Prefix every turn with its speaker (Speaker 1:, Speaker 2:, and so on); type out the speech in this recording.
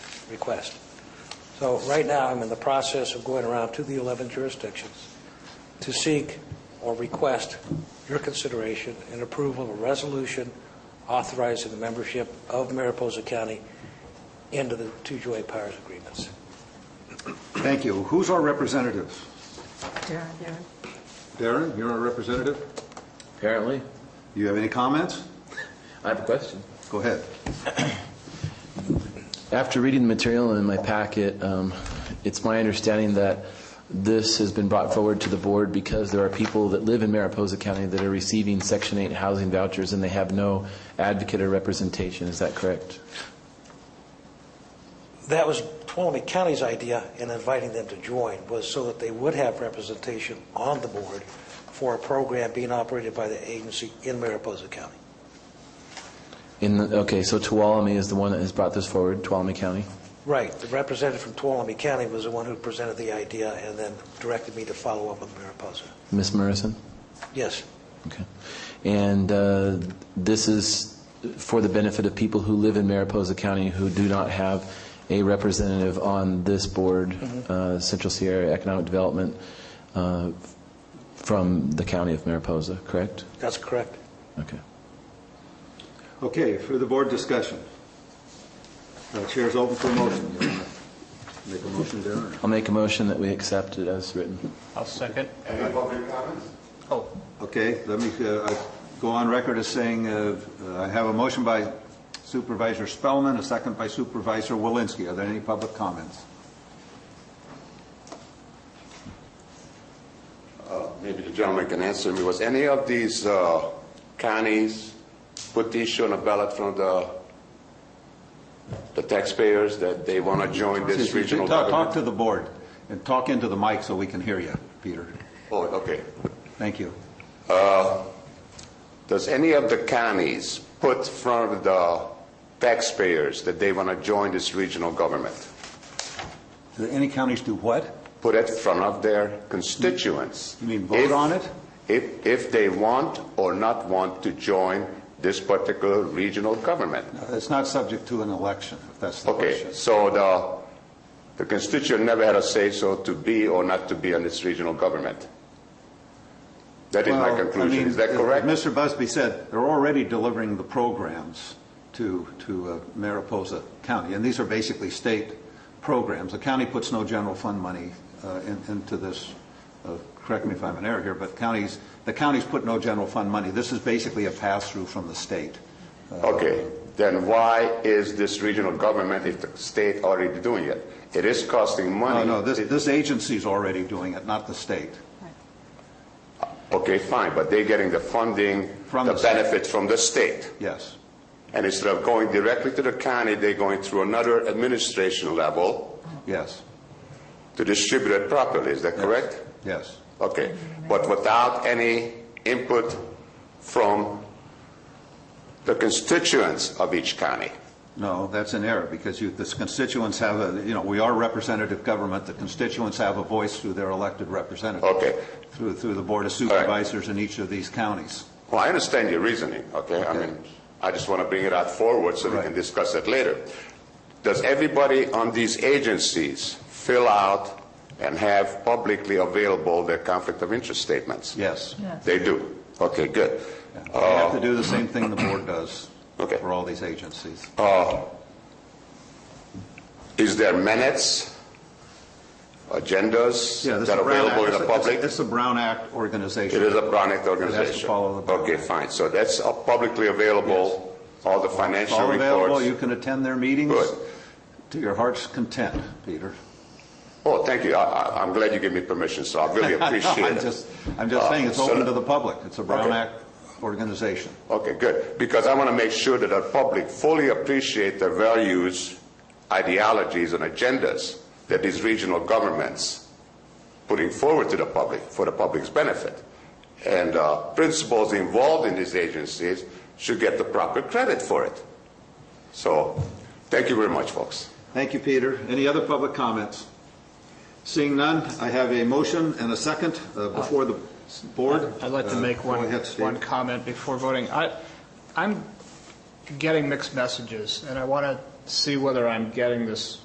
Speaker 1: request. So right now, I'm in the process of going around to the 11 jurisdictions to seek or request your consideration and approval of a resolution authorizing the membership of Mariposa County into the two joint powers agreements.
Speaker 2: Thank you. Who's our representative?
Speaker 3: Yeah, yeah.
Speaker 2: Darren, you're our representative?
Speaker 4: Apparently.
Speaker 2: You have any comments?
Speaker 4: I have a question.
Speaker 2: Go ahead.
Speaker 4: After reading the material in my packet, um, it's my understanding that this has been brought forward to the board because there are people that live in Mariposa County that are receiving Section 8 housing vouchers, and they have no advocate or representation. Is that correct?
Speaker 1: That was Tuolumne County's idea in inviting them to join, was so that they would have representation on the board for a program being operated by the agency in Mariposa County.
Speaker 4: In the, okay, so Tuolumne is the one that has brought this forward, Tuolumne County?
Speaker 1: Right, the representative from Tuolumne County was the one who presented the idea and then directed me to follow up with Mariposa.
Speaker 4: Ms. Morrison?
Speaker 1: Yes,
Speaker 4: Okay. And uh, this is for the benefit of people who live in Mariposa County who do not have a representative on this board, uh, Central Sierra Economic Development, uh, from the county of Mariposa, correct?
Speaker 1: that's correct.
Speaker 4: Okay.
Speaker 2: Okay, for the board discussion. Uh, Chair's open for motion. You wanna Make a motion, Darren?
Speaker 4: I'll make a motion that we accept it as written.
Speaker 5: I'll second.
Speaker 2: Any public comments? Oh. Okay, let me uh, I go on record as saying uh, uh, I have a motion by Supervisor Spellman, a second by Supervisor Walensky. Are there any public comments?
Speaker 6: Maybe the gentleman can answer me. Was any of these uh, counties put the issue on the ballot from the, the taxpayers that they want to join this regional
Speaker 2: Talk talk
Speaker 6: government?
Speaker 2: to the board and talk into the mic so we can hear you, Peter.
Speaker 6: Oh, okay.
Speaker 2: Thank you.
Speaker 6: Does any of the counties put from the taxpayers that they want to join this regional government?
Speaker 2: Do any counties do what?
Speaker 6: Put it in front of their constituents.
Speaker 2: You mean vote
Speaker 6: If-
Speaker 2: on it?
Speaker 6: If, if they want or not want to join this particular regional government.
Speaker 2: Uh, It's not subject to an election, if that's the
Speaker 6: Okay,
Speaker 2: question.
Speaker 6: so the, the constituent never had a say-so to be or not to be on this regional government? That is my
Speaker 2: Well, I
Speaker 6: conclusion,
Speaker 2: mean,
Speaker 6: is that
Speaker 2: if-
Speaker 6: correct?
Speaker 2: if Mr. Busby said they're already delivering the programs to, to uh, Mariposa County, and these are basically state programs. The county puts no general fund money uh, in- into this, uh, correct me if I'm in error here, but counties, the counties put no general fund money. This is basically a pass-through from the state.
Speaker 6: Okay, then why is this regional government, if the state already doing it? It is costing
Speaker 2: No,
Speaker 6: money.
Speaker 2: no, this, this agency's already doing it, not the state.
Speaker 6: Okay, fine, but they're getting the funding,
Speaker 2: From
Speaker 6: the
Speaker 2: the state.
Speaker 6: benefits from the state.
Speaker 2: Yes.
Speaker 6: And instead of going directly to the county, they're going through another administration level
Speaker 2: Yes.
Speaker 6: to distribute it properly, is that correct?
Speaker 2: Yes.
Speaker 6: Okay, but without any input from the constituents of each county?
Speaker 2: No, that's an error, because you, the constituents have a, you know, we are representative government, the constituents have a voice through their elected representatives.
Speaker 6: Okay.
Speaker 2: Through, through the Board of
Speaker 6: right.
Speaker 2: Supervisors in each of these counties.
Speaker 6: Well, I understand your reasoning, okay? I mean, I just want to bring it out forward so we can
Speaker 2: Right.
Speaker 6: discuss it later. Does everybody on these agencies fill out and have publicly available their conflict of interest statements?
Speaker 2: Yes.
Speaker 6: They do? Okay, good.
Speaker 2: They have to do the same thing the board does
Speaker 6: Uh, Okay. Uh,
Speaker 2: for all these agencies.
Speaker 6: Is there minutes, agendas
Speaker 2: Yeah, this is
Speaker 6: that are
Speaker 2: Brown
Speaker 6: available
Speaker 2: Act-
Speaker 6: in the
Speaker 2: it's a-
Speaker 6: public?
Speaker 2: It's a Brown Act organization.
Speaker 6: It is a Brown Act organization.
Speaker 2: follow the Brown
Speaker 6: Okay,
Speaker 2: Act.
Speaker 6: fine. So that's uh, publicly available, all the
Speaker 2: It's
Speaker 6: financial
Speaker 2: all available, you
Speaker 6: reports.
Speaker 2: can attend their meetings.
Speaker 6: Good.
Speaker 2: To your heart's content, Peter.
Speaker 6: Oh, thank you. I- I- I'm glad you gave me permission, so I really appreciate
Speaker 2: I'm
Speaker 6: it.
Speaker 2: just, I'm just saying, it's
Speaker 6: Uh, so-
Speaker 2: open to the public, it's a Brown
Speaker 6: Okay.
Speaker 2: Act organization.
Speaker 6: Okay, good. Because I want to make sure that the public fully appreciate the values, ideologies, and agendas that these regional governments putting forward to the public for the public's benefit. And uh, principals involved in these agencies should get the proper credit for it. So, thank you very much, folks.
Speaker 2: Thank you, Peter. Any other public comments? Seeing none, I have a motion and a second uh, before the board.
Speaker 5: I'd like to
Speaker 2: Uh,
Speaker 5: make one,
Speaker 2: Go ahead, Steve.
Speaker 5: one comment before voting. I, I'm getting mixed messages, and I want to see whether I'm getting this